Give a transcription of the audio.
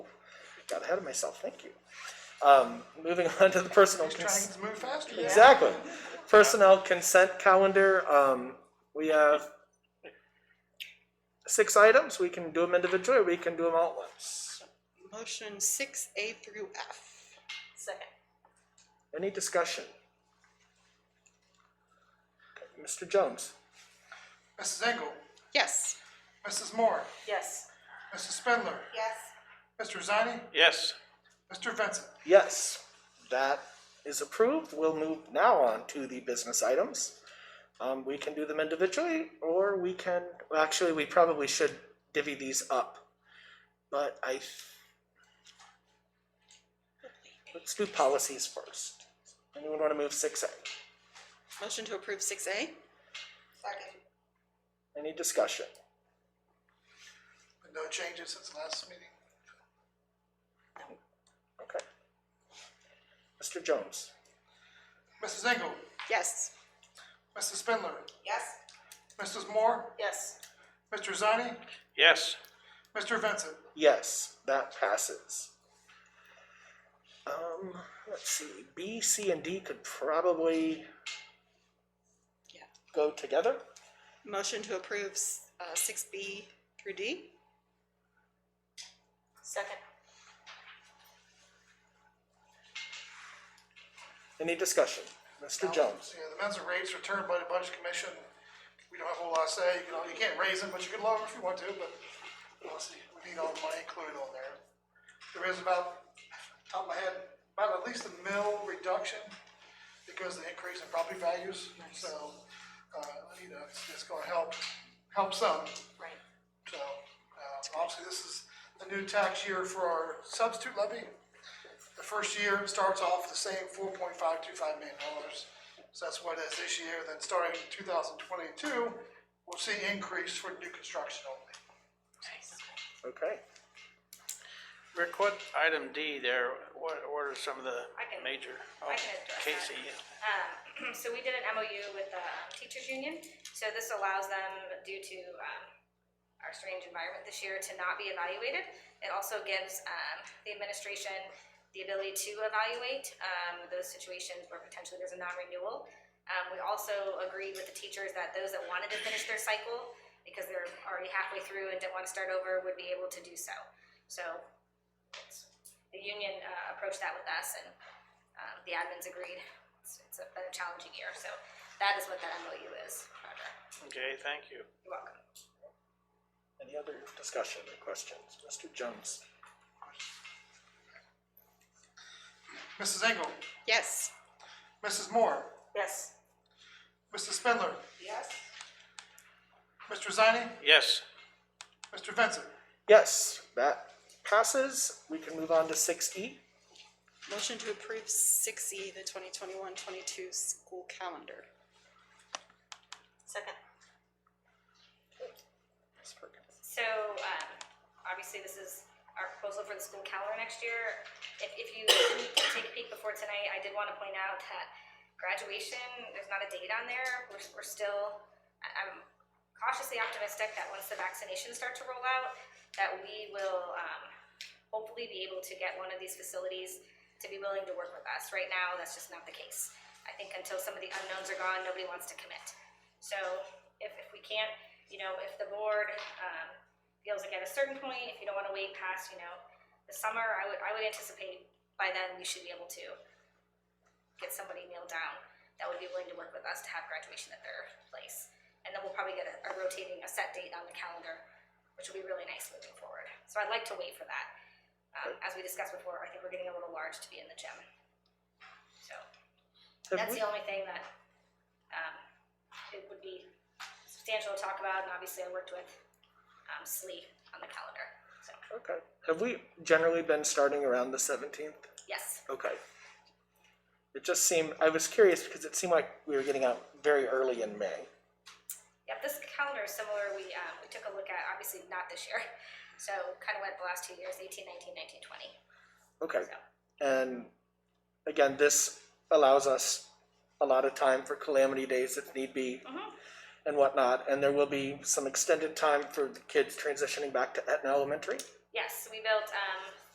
got ahead of myself, thank you. Um, moving on to the personal. He's cons- trying to move faster. than that. Exactly. Personnel consent calendar, um, we have six items, we can do them individually, or we can do them all at once. Motion six A through F. Second. Any discussion? Okay, Mr. Jones? Mrs. Engel, Yes. Mrs. Moore, Yes. Mrs. Spindler, Yes. Mr. Zani, Yes. Mr. Vincent. Yes, that is approved. We'll move now on to the business items. Um, we can do them individually, or we can, well, actually, we probably should divvy these up. But I, th- let's do policies first. Anyone wanna move six A? Motion to approve six A? Second. Any discussion? No changes since the last meeting. Okay. Mr. Jones? Mrs. Engel, Yes. Mrs. Spindler, Yes. Mrs. Moore, Yes. Mr. Zani, Yes. Mr. Vincent. Yes, that passes. Um, let's see, B, C, and D could probably Yeah. go together. Motion to approve s- uh, six B through D? Second. Any discussion? Mr. Jones? Yeah, the men's rates returned by the budget commission. We don't have a whole lot to say. You know, you can't raise them, but you can lower them if you want to, but obviously, we need all the money included on there. There is about, top of my head, about at least a mil reduction because of the increase in property values. So, uh, you know, it's, it's gonna help, help some. Right. So, uh, obviously, this is the new tax year for our substitute levy. The first year starts off the same four point five two five million dollars. So that's what it is this year, then starting in two thousand twenty-two, we'll see increase for new construction only. Okay. Rick, what item D there, what, what are some of the I can- major? Oh, I can address that. Casey, Um, so we did an MOU with the um, teachers union, so this allows them, due to, um, our strange environment this year, to not be evaluated. It also gives, um, the administration the ability to evaluate, um, those situations where potentially there's a non-renewal. Um, we also agreed with the teachers that those that wanted to finish their cycle, because they're already halfway through and didn't wanna start over, would be able to do so. So, it's, the union, uh, approached that with us and, um, the admins agreed it's, it's been a challenging year, so that is what that MOU is, Roger. okay, thank you. You're welcome. Any other discussion or questions? Mr. Jones? Mrs. Engel, Yes. Mrs. Moore, Yes. Mrs. Spindler, Yes. Mr. Zani, Yes, Mr. Vincent. Yes, that passes. We can move on to six E. Motion to approve six E, the 2021-22 school calendar? Second. So, um, obviously, this is our proposal for the school calendar next year. If, if you didn't take a peek before tonight, I did wanna point out that graduation, there's not a date on there, we're, we're still, I- I'm cautiously optimistic that once the vaccinations start to roll out, that we will, um, hopefully be able to get one of these facilities to be willing to work with us. Right now, that's just not the case. I think until some of the unknowns are gone, nobody wants to commit. So if, if we can't, you know, if the board, um, feels like at a certain point, if you don't wanna wait past, you know, the summer, I would, I would anticipate by then we should be able to get somebody nailed down that would be willing to work with us to have graduation at their place. And then we'll probably get a, a rotating, a set date on the calendar, which will be really nice moving forward. So I'd like to wait for that. Um, as we discussed before, I think we're getting a little large to be in the gym. So, Have that's we, the only thing that, um, it would be substantial to talk about, and obviously I worked with, um, SLE on the calendar, so, okay. Have we generally been starting around the seventeenth? yes, Okay. It just seemed, I was curious because it seemed like we were getting out very early in May. yep, this calendar is similar, we, um, we took a look at, obviously not this year, so kind of went the last two years, eighteen, nineteen, nineteen, twenty, Okay. so, And again, this allows us a lot of time for calamity days if need be Mhm. and whatnot. And there will be some extended time for the kids transitioning back to Etna Elementary. yes, we built, um,